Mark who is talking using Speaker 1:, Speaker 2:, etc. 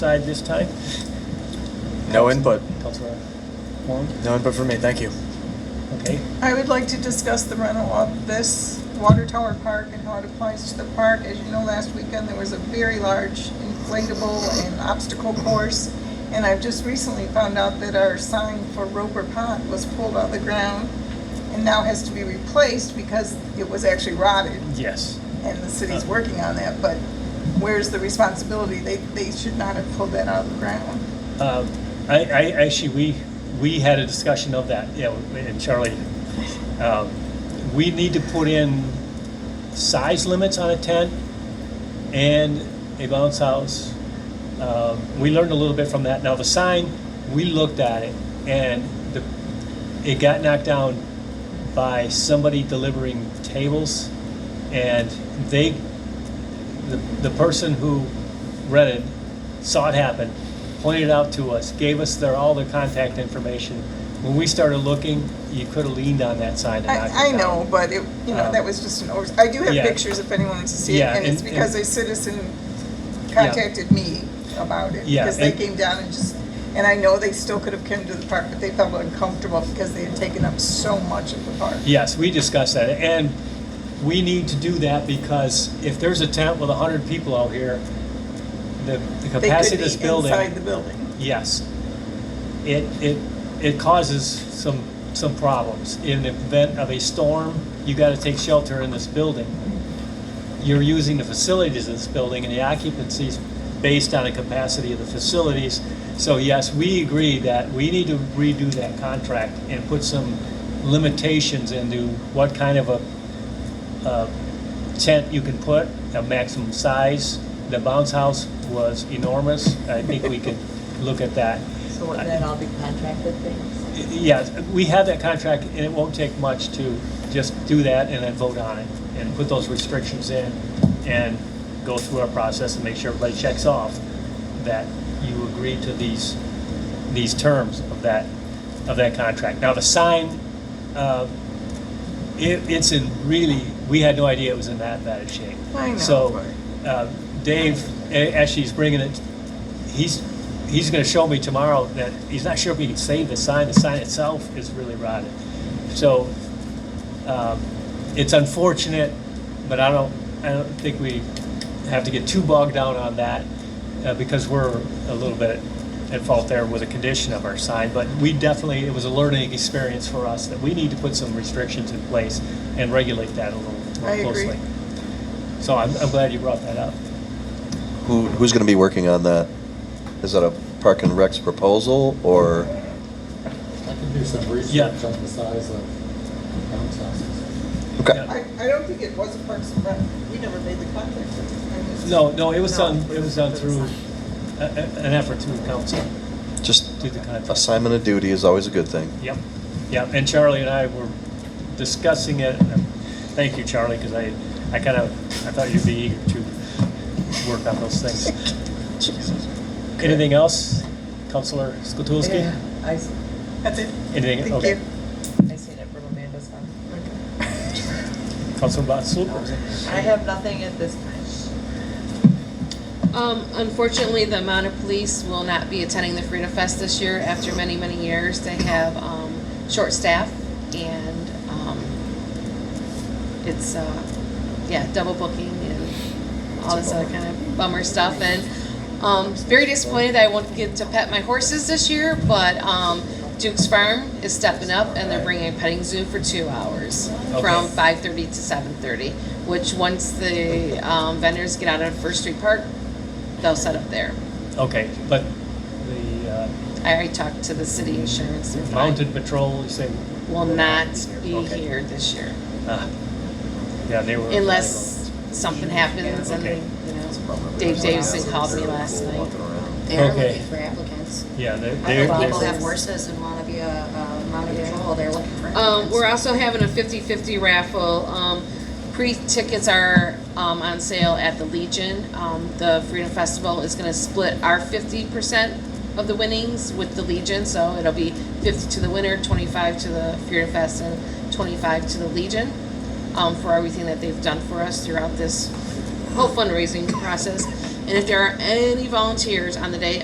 Speaker 1: Side this time,
Speaker 2: No input.
Speaker 1: Councilor Wong,
Speaker 2: No input for me. Thank you.
Speaker 1: okay.
Speaker 3: I would like to discuss the rental of this water tower park and how it applies to the park. As you know, last weekend, there was a very large inflatable and obstacle course. And I've just recently found out that our sign for Roper Pond was pulled out of the ground and now has to be replaced because it was actually rotted.
Speaker 1: Yes.
Speaker 3: And the city's working on that, but where's the responsibility? They, they should not have pulled that out of the ground.
Speaker 1: Um, I, I, actually, we, we had a discussion of that, yeah, and Charlie, um, we need to put in size limits on a tent and a bounce house. Um, we learned a little bit from that. Now, the sign, we looked at it and the, it got knocked down by somebody delivering tables and they the, the person who rented saw it happen, pointed it out to us, gave us their, all their contact information. When we started looking, you could have leaned on that sign and knocked
Speaker 3: I, I
Speaker 1: it down.
Speaker 3: know, but it, you know,
Speaker 1: Um,
Speaker 3: that was just an over, I do have
Speaker 1: yeah.
Speaker 3: pictures if anyone wants to see it,
Speaker 1: Yeah,
Speaker 3: and it's
Speaker 1: and-
Speaker 3: because
Speaker 1: and-
Speaker 3: a citizen contacted me about it.
Speaker 1: Yeah,
Speaker 3: Because they
Speaker 1: and-
Speaker 3: came down and just, and I know they still could have come to the park, but they felt uncomfortable because they had taken up so much of the park.
Speaker 1: Yes, we discussed that, and we need to do that because if there's a tent with hundred people out here, the, the
Speaker 3: They could
Speaker 1: capacity of this
Speaker 3: be
Speaker 1: building.
Speaker 3: inside the building.
Speaker 1: Yes. It, it, it causes some, some problems. In the event of a storm, you gotta take shelter in this building. You're using the facilities of this building and the occupancy's based on the capacity of the facilities. So yes, we agree that we need to redo that contract and put some limitations into what kind of a, a tent you can put, a maximum size. The bounce house was enormous. I think we could look at that.
Speaker 4: So would that all be contracted things?
Speaker 1: Yes, we have that contract, and it won't take much to just do that and then vote on it, and put those restrictions in, and go through our process and make sure everybody checks off that you agree to these, these terms of that, of that contract. Now, the sign, uh, it, it's in really, we had no idea it was in that bad a shape.
Speaker 3: I know,
Speaker 1: So, uh, Dave, a- actually, he's bringing it, he's, he's gonna show me tomorrow that he's not sure if he can save the sign, the sign itself is really rotted. So, um, it's unfortunate, but I don't, I don't think we have to get too bogged down on that, uh, because we're a little bit at fault there with the condition of our sign, but we definitely, it was a learning experience for us that we need to put some restrictions in place and regulate that a little
Speaker 3: I
Speaker 1: more
Speaker 3: agree.
Speaker 1: closely. So I'm, I'm glad you brought that up.
Speaker 5: Who, who's going to be working on that? Is that a Park and Rec's proposal, or,
Speaker 6: I can do some research
Speaker 1: Yeah.
Speaker 6: on the size of bounce houses.
Speaker 5: okay,
Speaker 1: Yeah.
Speaker 3: I, I don't think it was a Parks and Rec, we never made the contact with them. It was-
Speaker 1: No, no, it was
Speaker 4: No,
Speaker 1: done, it was done through a- a- an effort through council,
Speaker 5: just
Speaker 1: through the contract.
Speaker 5: assignment of duty is always a good thing.
Speaker 1: Yep, yep, and Charlie and I were discussing it. Thank you, Charlie, because I, I kind of, I thought you'd be eager to work on those things. Anything else, Counselor Skatulski?
Speaker 4: Yeah, I, s-
Speaker 3: That's it.
Speaker 1: Anything-
Speaker 3: Thank
Speaker 1: okay.
Speaker 3: you.
Speaker 4: I seen it from Amanda's house.
Speaker 1: Counselor Batslooper?
Speaker 4: I have nothing at this time.
Speaker 7: Um, unfortunately, the amount of police will not be attending the Frida Fest this year. After many, many years, they have, um, short staff and, um, it's, uh, yeah, double booking and all this other kind of bummer stuff. And, um, very disappointed that I won't get to pet my horses this year, but, um, Duke's Farm is stepping up and they're bringing a petting zoo for two hours from
Speaker 1: Okay.
Speaker 7: five thirty to seven thirty, which once the um, vendors get out of First Street Park, they'll set up there.
Speaker 1: Okay, but the uh,
Speaker 7: I already talked to the city insurance. they're fine.
Speaker 1: mounted patrol, you say?
Speaker 7: Will not be
Speaker 1: Okay.
Speaker 7: here this year
Speaker 1: ah, Yeah, they were.
Speaker 7: unless something happens and,
Speaker 1: Okay.
Speaker 7: you know, Dave Davison called me last night.
Speaker 8: They are
Speaker 1: Okay.
Speaker 8: looking for applicants.
Speaker 1: Yeah, they- they.
Speaker 8: Other
Speaker 7: Well,
Speaker 8: people
Speaker 7: there's-
Speaker 8: have horses and want to be a, a mounted patrol, they're looking for
Speaker 7: Um,
Speaker 8: applicants.
Speaker 7: we're also having a 50-50 raffle. Um, pre-tickets are, um, on sale at the Legion. Um, the Freedom Festival is gonna split our fifty percent of the winnings with the Legion, so it'll be fifty to the winner, twenty-five to the Freedom Fest, and twenty-five to the Legion, um, for everything that they've done for us throughout this whole fundraising process. And if there are any volunteers on the day